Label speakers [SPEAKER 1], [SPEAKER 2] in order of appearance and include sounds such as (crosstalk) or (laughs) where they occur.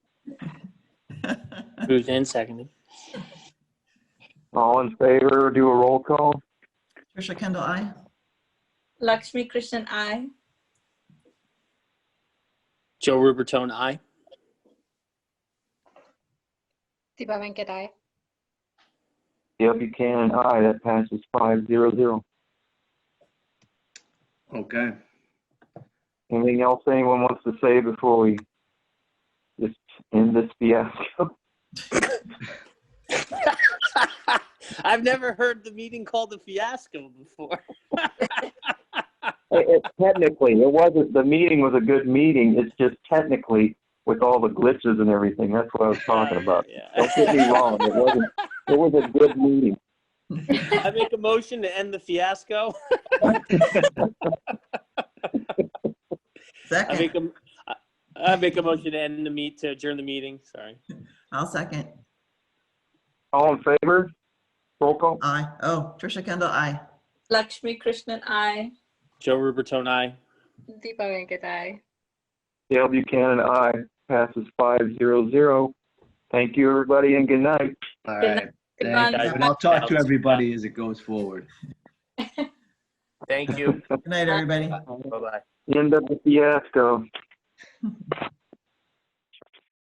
[SPEAKER 1] moved and seconded.
[SPEAKER 2] All in favor, do a roll call.
[SPEAKER 3] Trisha Kendall, aye.
[SPEAKER 4] Lakshmi Krishnan, I.
[SPEAKER 1] Joe Rubertone, aye.
[SPEAKER 5] Deepa Venkat, aye.
[SPEAKER 2] Dale Buchanan, aye. That passes five zero zero.
[SPEAKER 6] Okay.
[SPEAKER 2] Anything else anyone wants to say before we just end this fiasco?
[SPEAKER 1] (laughs) I've never heard the meeting called a fiasco before.
[SPEAKER 2] (laughs) It- it- Technically, it wasn't, the meeting was a good meeting. It's just technically with all the glitches and everything. That's what I was talking about. Don't get me
[SPEAKER 1] Yeah.
[SPEAKER 2] wrong. It wasn't, it was a good meeting.
[SPEAKER 1] (laughs) I make a motion to end the fiasco. I
[SPEAKER 3] Second,
[SPEAKER 1] make a, I- I make a motion to end the meet, to adjourn the meeting, sorry.
[SPEAKER 3] I'll second.
[SPEAKER 2] All in favor? Roll call.
[SPEAKER 3] Aye. Oh, Trisha Kendall, aye.
[SPEAKER 4] Lakshmi Krishnan, I.
[SPEAKER 1] Joe Rubertone, aye.
[SPEAKER 5] Deepa Venkat, aye.
[SPEAKER 2] Dale Buchanan, aye. Passes five zero zero. Thank you, everybody, and good night.
[SPEAKER 6] All
[SPEAKER 4] Good
[SPEAKER 6] right.
[SPEAKER 4] Good
[SPEAKER 6] Thank
[SPEAKER 4] night.
[SPEAKER 6] you. And I'll talk to everybody as it goes forward.
[SPEAKER 1] Thank you. (laughs)
[SPEAKER 3] Good night, everybody.
[SPEAKER 1] Bye-bye.
[SPEAKER 2] End of the fiasco.